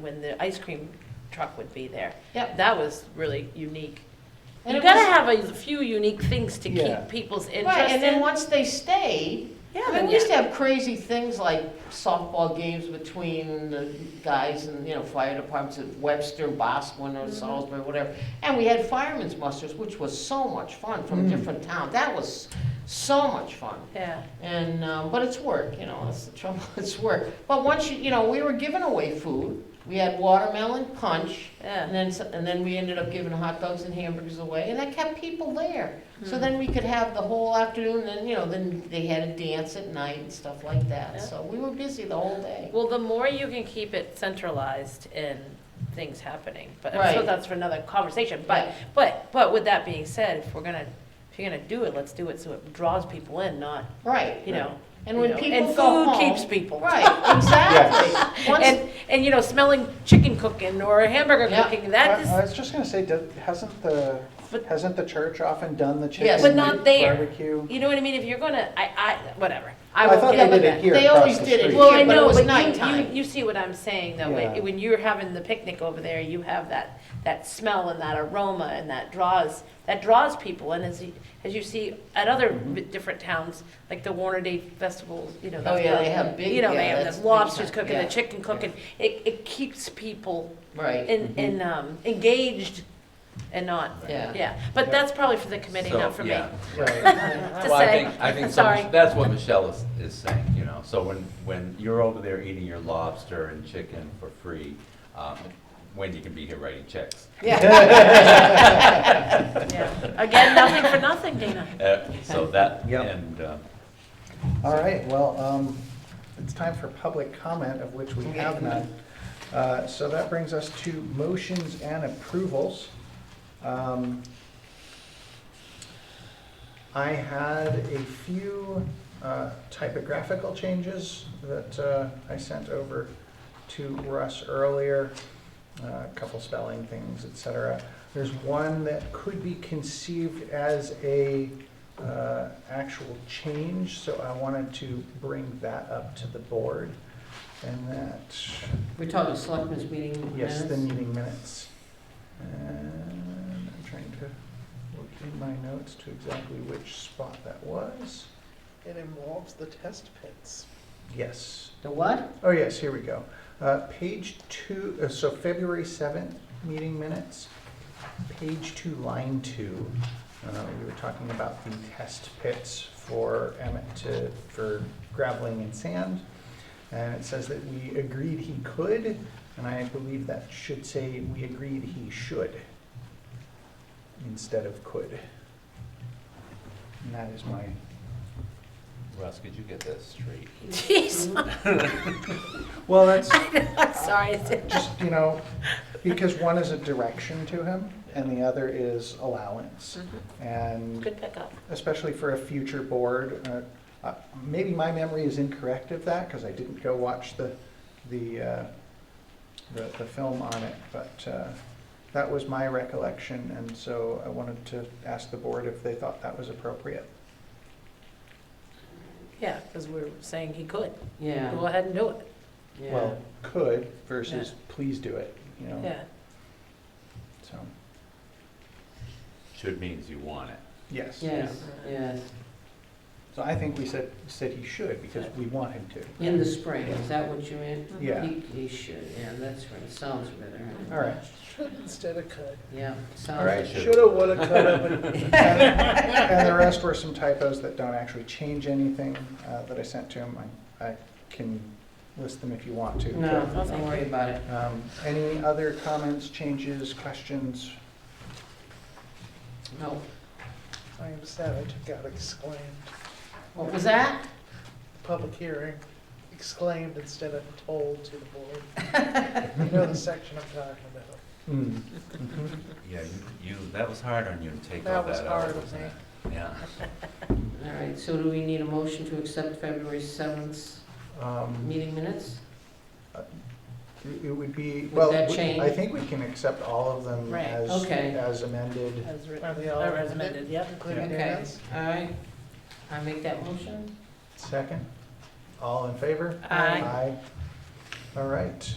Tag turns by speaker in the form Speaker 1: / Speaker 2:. Speaker 1: when the ice cream truck would be there.
Speaker 2: Yep.
Speaker 1: That was really unique.
Speaker 2: And
Speaker 1: You
Speaker 2: it
Speaker 1: gotta
Speaker 2: was-
Speaker 1: have a few unique things to
Speaker 3: Yeah.
Speaker 1: keep people's interest in.
Speaker 2: Right, and then once they stayed,
Speaker 1: Yeah,
Speaker 2: I
Speaker 1: then
Speaker 2: mean, we used to have crazy things like softball games between the guys and, you know, fire departments at Webster, Bosquen,
Speaker 1: Mm-hmm.
Speaker 2: or Salisbury, whatever. And we had firemen's musters, which was so much fun from
Speaker 3: Mm.
Speaker 2: different towns. That was so much fun.
Speaker 1: Yeah,
Speaker 2: And, um, but it's work, you know, that's the trouble, it's work. But once you, you know, we were giving away food. We had watermelon punch.
Speaker 1: yeah.
Speaker 2: And then, s- and then we ended up giving hot dogs and hamburgers away, and that kept people there. So then we could have the whole afternoon, and, you know, then they had a dance at night and stuff like that.
Speaker 1: Yeah.
Speaker 2: So we were busy the whole day.
Speaker 1: Well, the more you can keep it centralized in things happening, but so
Speaker 2: Right.
Speaker 1: that's for another conversation. But
Speaker 2: Right.
Speaker 1: but but with that being said, if we're gonna if you're gonna do it, let's do it so it draws people in, not
Speaker 2: Right.
Speaker 1: you know.
Speaker 2: And
Speaker 1: you
Speaker 2: when
Speaker 1: know,
Speaker 2: people
Speaker 1: and
Speaker 2: go
Speaker 1: food
Speaker 2: home.
Speaker 1: keeps people
Speaker 2: Right, exactly. Once,
Speaker 1: and and you know smelling chicken cooking or hamburger
Speaker 2: Yeah.
Speaker 1: cooking
Speaker 3: I
Speaker 1: that is
Speaker 3: I was just gonna say, does- hasn't the,
Speaker 1: But-
Speaker 3: hasn't the church often done the
Speaker 2: Yes.
Speaker 3: chicken
Speaker 1: But not there.
Speaker 3: barbecue?
Speaker 1: you know what I mean. If you're gonna I I whatever I,
Speaker 3: I
Speaker 1: will
Speaker 3: thought
Speaker 1: get
Speaker 3: they
Speaker 1: with
Speaker 3: did
Speaker 1: that.
Speaker 3: it here
Speaker 2: They
Speaker 3: across
Speaker 2: always
Speaker 3: the
Speaker 2: did it
Speaker 3: street.
Speaker 1: Well,
Speaker 2: Yeah,
Speaker 1: I
Speaker 2: but it
Speaker 1: know,
Speaker 2: was
Speaker 1: but you, you,
Speaker 2: nighttime.
Speaker 1: you see what I'm saying, though,
Speaker 3: Yeah.
Speaker 1: when, when you're having the picnic over there, you have that, that smell and that aroma, and that draws, that draws people, and as you, as you see at other
Speaker 3: Mhm.
Speaker 1: bi- different towns, like the Warner Day Festivals, you know.
Speaker 2: Oh,
Speaker 1: that's
Speaker 2: yeah,
Speaker 1: the-
Speaker 2: they have big-
Speaker 1: You know,
Speaker 2: yeah,
Speaker 1: they have
Speaker 2: that's
Speaker 1: the
Speaker 2: big
Speaker 1: lobsters
Speaker 2: time,
Speaker 1: cooking, the
Speaker 2: yeah.
Speaker 1: chicken cooking, it, it keeps people
Speaker 2: right,
Speaker 1: in, in, um, engaged and not,
Speaker 2: yeah,
Speaker 1: yeah, but
Speaker 3: Mm-hmm. Yeah.
Speaker 1: that's probably for the committee, not for me. Uh,
Speaker 2: right.
Speaker 1: To
Speaker 4: Well, I
Speaker 1: say.
Speaker 4: think, I think some-
Speaker 1: Sorry.
Speaker 4: that's what Michelle is, is saying, you know, so when, when you're over there eating your lobster and chicken for free, um, when you can be here writing checks.
Speaker 1: Yeah. Again, nothing for nothing, Dana.
Speaker 4: Uh, So that,
Speaker 3: Yep.
Speaker 4: and, uh,
Speaker 3: All right, well, um, it's time for public comment, of which we have none. Uh, So that brings us to motions and approvals. Um, I had a few uh, typographical changes that uh, I sent over to Russ earlier, uh, a couple spelling things, et cetera. There's one that could be conceived as a uh, actual change, so I wanted to bring that up to the board. And that,
Speaker 2: We're talking selectmen's meeting
Speaker 3: yes, the
Speaker 2: minutes?
Speaker 3: meeting minutes. And I'm trying to look in my notes to exactly which spot that was.
Speaker 5: It involves the test pits.
Speaker 3: Yes.
Speaker 2: The what?
Speaker 3: Oh, yes, here we go. Uh, Page two, uh, so February 7th, meeting minutes, page two, line two. Uh, We were talking about the test pits for Emmett to, for graveling and sand. And it says that we agreed he could, and I believe that should say we agreed he should instead of could. And that is my,
Speaker 4: Russ, could you get that straight?
Speaker 1: Jeez,
Speaker 3: well, that's.
Speaker 1: I'm sorry, it's-
Speaker 3: just, you know, because one is a direction to him and the other is allowance. And
Speaker 1: Good pickup.
Speaker 3: especially for a future board, uh, uh, maybe my memory is incorrect of that because I didn't go watch the, the, uh, the the film on it, but uh, that was my recollection. And so I wanted to ask the board if they thought that was appropriate.
Speaker 1: Yeah, because we were saying he could. Go
Speaker 2: Yeah,
Speaker 1: ahead and do it,
Speaker 2: yeah.
Speaker 3: Well, could versus please do it, you know,
Speaker 1: yeah.
Speaker 3: so,
Speaker 4: Should means you want it.
Speaker 3: yes.
Speaker 2: Yes, yes,
Speaker 3: So I think we said, said he should because we want him to.
Speaker 2: in the spring, is that what you meant?
Speaker 3: Yeah.
Speaker 2: He, he should, yeah, that's right, sounds better.
Speaker 3: All right.
Speaker 5: Should instead of could.
Speaker 2: Yeah,
Speaker 3: All
Speaker 2: sounds
Speaker 3: right.
Speaker 4: Should.
Speaker 5: Shoulda, woulda, coulda, but
Speaker 3: And the rest were some typos that don't actually change anything uh, that I sent to him. I I can list them if you want to.
Speaker 2: No,
Speaker 1: No, thank
Speaker 2: don't worry about it.
Speaker 3: Um, Any other comments, changes, questions?
Speaker 2: No.
Speaker 5: I am sad I took out exclaimed.
Speaker 2: What was that?
Speaker 5: Public hearing, exclaimed instead of told to the board. You know the section I'm talking about.
Speaker 3: Hmm.
Speaker 4: Yeah, you- you, that was hard on you to take all
Speaker 5: That was
Speaker 4: that out,
Speaker 5: hard on
Speaker 4: wasn't
Speaker 5: me.
Speaker 4: it? Yeah.
Speaker 2: All right, so do we need a motion to accept February 7th
Speaker 3: Um,
Speaker 2: meeting minutes?
Speaker 3: It it would be,
Speaker 2: Would
Speaker 3: well,
Speaker 2: that
Speaker 3: we-
Speaker 2: change?
Speaker 3: I think we can accept all of them
Speaker 1: Right.
Speaker 3: as
Speaker 2: Okay.
Speaker 3: as amended.
Speaker 1: As written,
Speaker 5: Are they all
Speaker 1: or as amended, yep.
Speaker 5: Including
Speaker 2: Okay,
Speaker 5: Dan's?
Speaker 2: all right. I make that motion?
Speaker 3: Second? All in favor?
Speaker 1: Aye.
Speaker 3: All right.